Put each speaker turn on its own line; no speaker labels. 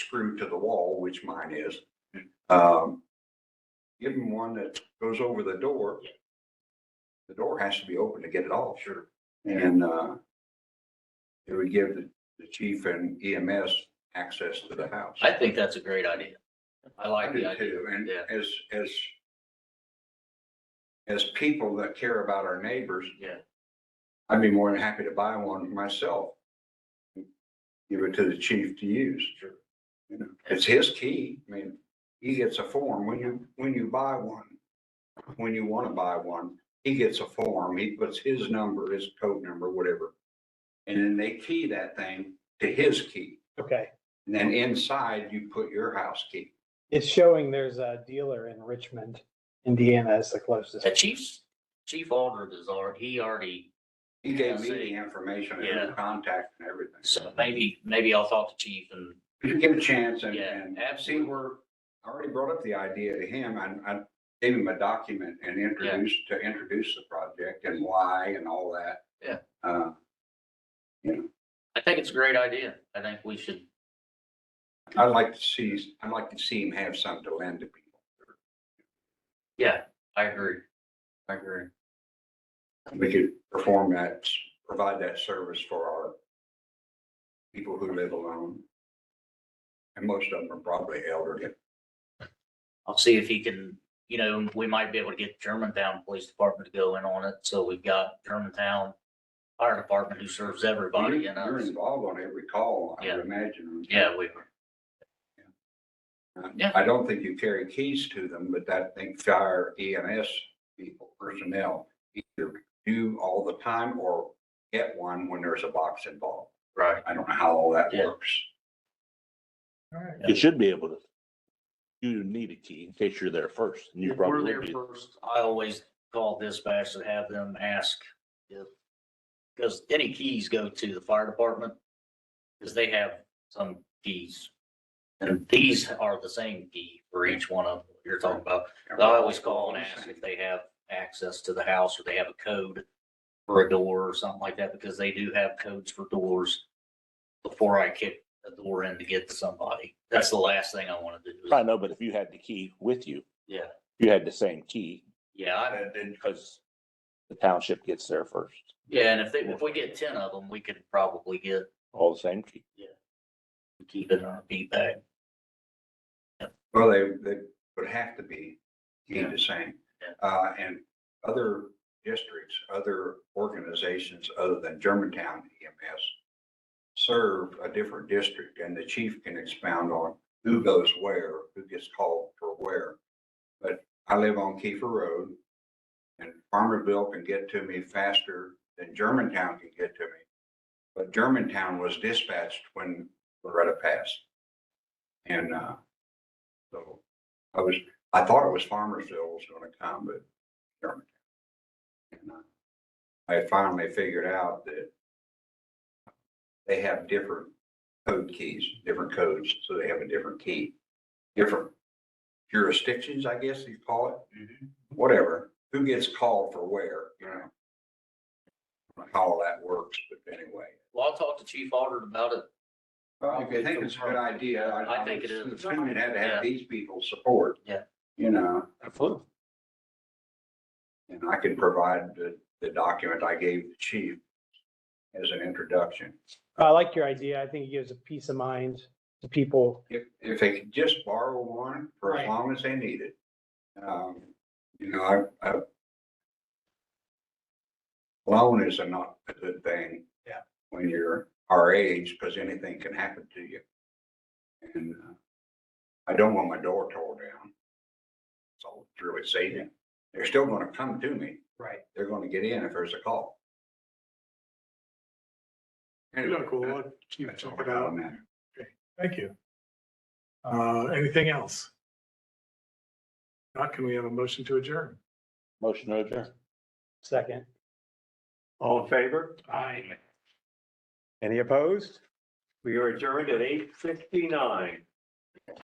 screwed to the wall, which mine is. Um, give them one that goes over the door. The door has to be open to get it off. Sure. And, uh, it would give the, the chief and EMS access to the house.
I think that's a great idea. I
I
like
do
the idea.
too, and
yeah.
as, as as people that care about our neighbors,
Yeah,
I'd be more than happy to buy one myself. Give it to the chief to use. You know, it's his key. I mean, he gets a form. When you, when you buy one, when you want to buy one, he gets a form. He puts his number, his code number, whatever. And then they key that thing to his key.
Okay,
And then inside you put your house key.
it's showing there's a dealer in Richmond, Indiana as the closest.
the chief's, Chief Aldred is already, he already,
He gave me
Yeah, I
the
see.
information
Yeah.
and contact and everything.
so maybe, maybe I'll talk to chief and,
Give it a chance and,
Yeah,
and see
absolutely.
where, I already brought up the idea to him. I, I gave him a document and introduced, to introduce the project and why and all that.
Yeah.
Uh,
I think it's a great idea. I think we should,
I'd like to see, I'd like to see him have something to lend to people.
yeah, I agree. I agree.
We could perform that, provide that service for our people who live alone. And most of them are probably elderly.
I'll see if he can, you know, we might be able to get Germantown Police Department to go in on it, so we've got Germantown Fire Department who serves everybody
You're-
and
You're
us.
involved on every call, I
Yeah.
would imagine.
Yeah, we,
Uh,
Yeah.
I don't think you carry keys to them, but I think fire EMS people, personnel, either do all the time or get one when there's a box involved.
right.
I don't know how all that
Yeah.
works.
Yeah.
You should be able to. You need a key in case you're there first. and You
If we're
probably
there
did.
first, I always call dispatch and have them ask if, because any keys go to the fire department, because they have some keys. And these are the same key for each one of them you're talking about. I always call and ask if they have access to the house or they have a code for a door or something like that, because they do have codes for doors before I kick a door in to get to somebody. That's the last thing I want to do.
I know, but if you had the key with you.
Yeah.
You had the same key
Yeah, I,
And then-
because the township gets there first,
yeah, and if they, if we get ten of them, we could probably get,
all the same key.
keep it on a beat bag.
Well, they, they would have to be key
Yeah.
the same.
Yeah.
Uh, and other districts, other organizations other than Germantown EMS serve a different district and the chief can expound on who goes where, who gets called for where. But I live on Kiefer Road and Farmerville can get to me faster than Germantown can get to me. But Germantown was dispatched when Loretta passed. And, uh, so I was, I thought it was Farmersville was gonna come, but Germantown. And, uh, I finally figured out that they have different code keys, different codes, so they have a different key. Different jurisdictions, I guess you call it, whatever, who gets called for where, you know? I don't know How all that works, but anyway.
Well, I'll talk to Chief Aldred about it.
Well, if you think it's a good idea, I.
I think it is.
Assuming it had to
Yeah.
have these people support.
Yeah.
You know,
Absolutely.
and I could provide the, the document I gave the chief as an introduction.
I like your idea. I think it gives a peace of mind to people.
If, if they could just borrow one for as
Right.
long as they need it. Um, you know, I, I. Loan is a not a good thing.
Yeah.
When you're our age, because anything can happen to you. And uh, I don't want my door tore down. So it's really saving. They're still gonna come to me.
Right.
They're gonna get in if there's a call.
You
Anyway,
look cool.
that-
I'll keep
that's all
checking
I got
out.
on that.
Thank you. Uh, anything else? Not, can we have a motion to adjourn?
Motion to adjourn.
Second.
All in favor?
Aye.
Any opposed? We are adjourned at eight fifty-nine.